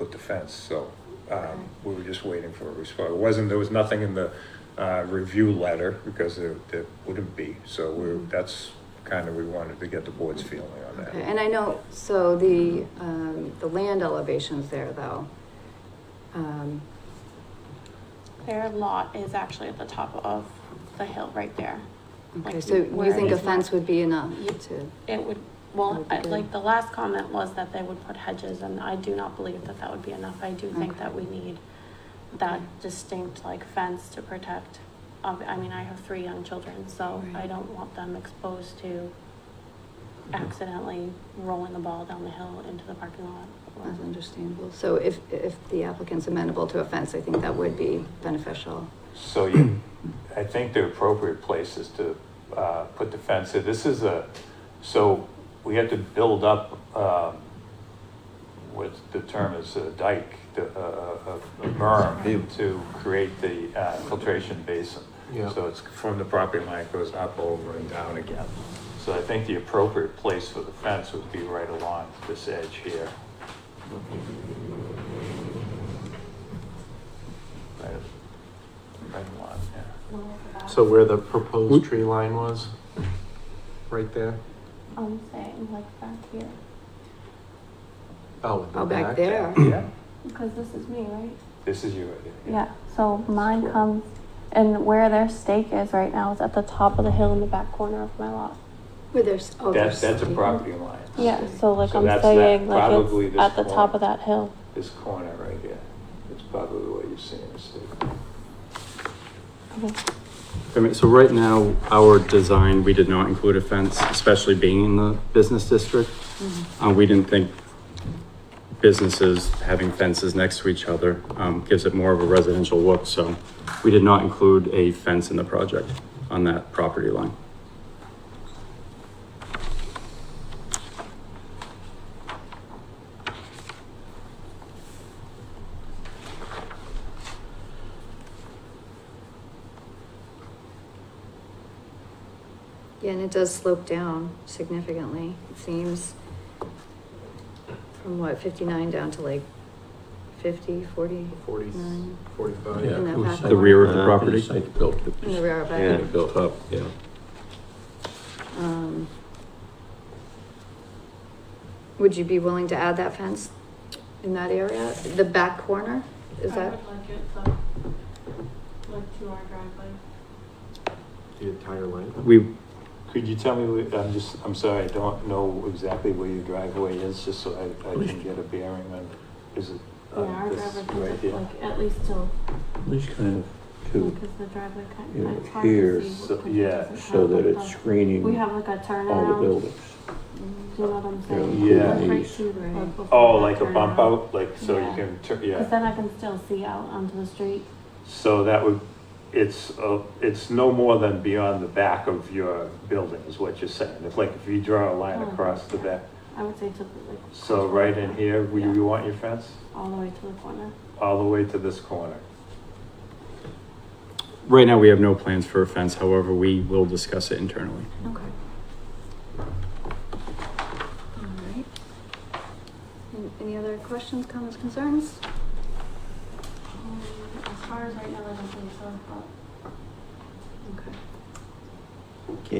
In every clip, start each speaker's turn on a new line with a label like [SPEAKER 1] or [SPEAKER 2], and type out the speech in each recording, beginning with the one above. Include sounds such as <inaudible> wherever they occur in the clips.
[SPEAKER 1] the fence, so um, we were just waiting for a response. It wasn't, there was nothing in the uh, review letter, because there there wouldn't be, so we're, that's kind of, we wanted to get the board's feeling on
[SPEAKER 2] Mm-hmm. Okay,
[SPEAKER 1] that.
[SPEAKER 2] and I know, so the, um, the land elevations there though. um,
[SPEAKER 3] Their lot is actually at the top of the hill right there.
[SPEAKER 2] Okay,
[SPEAKER 3] Like,
[SPEAKER 2] so
[SPEAKER 3] where
[SPEAKER 2] you think a
[SPEAKER 3] it's
[SPEAKER 2] fence would be enough
[SPEAKER 3] You-
[SPEAKER 2] to,
[SPEAKER 3] It would,
[SPEAKER 2] That
[SPEAKER 3] well,
[SPEAKER 2] would be
[SPEAKER 3] I-
[SPEAKER 2] good.
[SPEAKER 3] like the last comment was that they would put hedges and I do not believe that that would be enough. I do think
[SPEAKER 2] Okay.
[SPEAKER 3] that we need that
[SPEAKER 2] Okay.
[SPEAKER 3] distinct like fence to protect. ob- I mean, I have three young children, so I
[SPEAKER 2] Right.
[SPEAKER 3] don't want them exposed to accidentally rolling the ball down the hill into the parking lot. or-
[SPEAKER 2] that's understandable. So if, if the applicant's amenable to a fence, I think that would be beneficial.
[SPEAKER 4] So you, I think the appropriate place is to uh, put the fence in. This is a, so we have to build up um, what the term is a dike, the- a a- a berm to create the uh, filtration basin.
[SPEAKER 1] Yeah.
[SPEAKER 4] So it's,
[SPEAKER 1] From the property line, it goes up, over, and down again.
[SPEAKER 4] so I think the appropriate place for the fence would be right along this edge here. Right, right along there.
[SPEAKER 5] So where the proposed
[SPEAKER 6] We-
[SPEAKER 5] tree line was? Right there?
[SPEAKER 3] I'm saying like back here,
[SPEAKER 5] Oh, in the
[SPEAKER 2] Oh, back
[SPEAKER 5] back?
[SPEAKER 2] there.
[SPEAKER 4] Yeah.
[SPEAKER 3] because this is me, right?
[SPEAKER 4] This is you right here.
[SPEAKER 3] Yeah, so mine comes, and where their stake is right now is at the top of the hill in the back corner of my lot.
[SPEAKER 2] Where there's, oh,
[SPEAKER 4] That's,
[SPEAKER 2] there's.
[SPEAKER 4] that's a
[SPEAKER 2] something.
[SPEAKER 4] property line.
[SPEAKER 3] Yeah, so like
[SPEAKER 4] So
[SPEAKER 3] I'm
[SPEAKER 4] that's
[SPEAKER 3] saying,
[SPEAKER 4] that-
[SPEAKER 3] like
[SPEAKER 4] probably
[SPEAKER 3] it's
[SPEAKER 4] this
[SPEAKER 3] at the top
[SPEAKER 4] corner.
[SPEAKER 3] of that hill.
[SPEAKER 4] This corner right here, it's probably what you're seeing, it's the-
[SPEAKER 6] I mean, so right now, our design, we did not include a fence, especially being in the business district. Uh, we didn't think businesses having fences next to each other, um, gives it more of a residential look, so we did not include a fence in the project on that property line.
[SPEAKER 2] Yeah, and it does slope down significantly, it seems. From what, fifty-nine down to like fifty, forty?
[SPEAKER 5] Forty,
[SPEAKER 2] Nine.
[SPEAKER 5] forty-five?
[SPEAKER 2] Yeah. that
[SPEAKER 7] it was
[SPEAKER 2] back
[SPEAKER 7] site-
[SPEAKER 2] The rear
[SPEAKER 6] of the
[SPEAKER 7] after
[SPEAKER 6] property?
[SPEAKER 7] Site built. it
[SPEAKER 2] In the
[SPEAKER 7] was
[SPEAKER 2] rear of
[SPEAKER 7] kinda
[SPEAKER 2] it.
[SPEAKER 7] Built up, yeah.
[SPEAKER 2] Um, Would you be willing to add that fence in that area, the back corner? Is
[SPEAKER 8] I
[SPEAKER 2] that,
[SPEAKER 8] would like it, so, like to our driveway.
[SPEAKER 5] The entire length?
[SPEAKER 6] We,
[SPEAKER 4] Could you tell me, where- I'm just, I'm sorry, I don't know exactly where your driveway is, just so I, I can get a bearing on, is it?
[SPEAKER 8] Yeah,
[SPEAKER 4] on
[SPEAKER 8] our
[SPEAKER 4] Uh, this
[SPEAKER 8] driveway
[SPEAKER 4] Right
[SPEAKER 8] comes up
[SPEAKER 4] here?
[SPEAKER 8] like at least till,
[SPEAKER 7] At least kind of to,
[SPEAKER 8] because the driveway
[SPEAKER 7] Yeah,
[SPEAKER 8] kind of, it's hard to
[SPEAKER 7] here,
[SPEAKER 8] see.
[SPEAKER 4] so-
[SPEAKER 8] because it
[SPEAKER 4] yeah,
[SPEAKER 8] doesn't
[SPEAKER 7] so
[SPEAKER 8] have
[SPEAKER 7] that
[SPEAKER 8] like
[SPEAKER 7] it's
[SPEAKER 8] the-
[SPEAKER 7] screening
[SPEAKER 8] We have like a
[SPEAKER 7] all the
[SPEAKER 8] turnaround, do
[SPEAKER 7] buildings.
[SPEAKER 8] you know what I'm saying?
[SPEAKER 4] Yeah.
[SPEAKER 8] Like right
[SPEAKER 7] Yeah.
[SPEAKER 8] to the- like before
[SPEAKER 4] Oh,
[SPEAKER 8] that
[SPEAKER 4] like a bump
[SPEAKER 8] turnaround.
[SPEAKER 4] out, like, so you
[SPEAKER 8] Yeah.
[SPEAKER 4] can, tur-
[SPEAKER 8] Cause
[SPEAKER 4] yeah,
[SPEAKER 8] then I can still see out onto the street.
[SPEAKER 4] so that would, it's, uh, it's no more than beyond the back of your building is what you're saying. It's like if you draw a line
[SPEAKER 8] Oh,
[SPEAKER 4] across the
[SPEAKER 8] yeah.
[SPEAKER 4] back,
[SPEAKER 8] I would say to the, like.
[SPEAKER 4] so right in here, we,
[SPEAKER 8] Yeah.
[SPEAKER 4] you want your fence?
[SPEAKER 8] All the way to the corner.
[SPEAKER 4] all the way to this corner.
[SPEAKER 6] right now, we have no plans for a fence, however, we will discuss it internally.
[SPEAKER 2] okay. All right. An- Any other questions, comments, concerns?
[SPEAKER 8] Um, As far as right now, I don't think so, but.
[SPEAKER 2] Okay.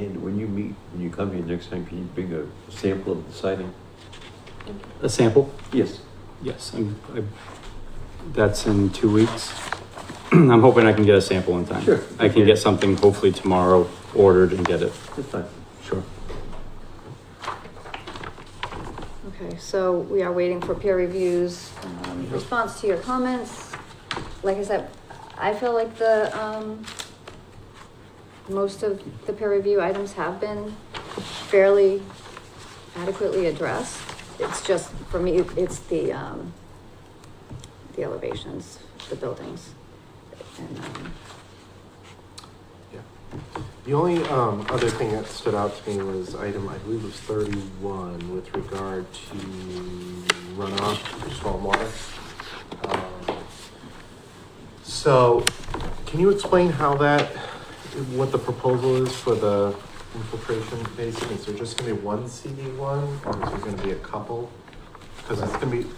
[SPEAKER 7] Ken, when you meet, when you come here next time, can you bring a sample of the siding?
[SPEAKER 6] A sample?
[SPEAKER 7] Yes.
[SPEAKER 6] Yes, I'm, I, that's in two weeks. <clears throat> I'm hoping I can get a sample in time.
[SPEAKER 7] Sure.
[SPEAKER 6] I can get something hopefully tomorrow ordered and get it.
[SPEAKER 7] That's fine.
[SPEAKER 6] Sure.
[SPEAKER 2] Okay, so we are waiting for peer reviews, um, response to your comments. Like I said, I feel like the, um, most of the peer review items have been fairly adequately addressed. It's just, for me, it's the, um, the elevations, the buildings. And, um,
[SPEAKER 5] The only um, other thing that stood out to me was item, I believe it was thirty-one, with regard to runoff for stormwater. Um, So, can you explain how that, what the proposal is for the infiltration basin? Is there just gonna be one CD one, or is there gonna be a couple? Because it's gonna be,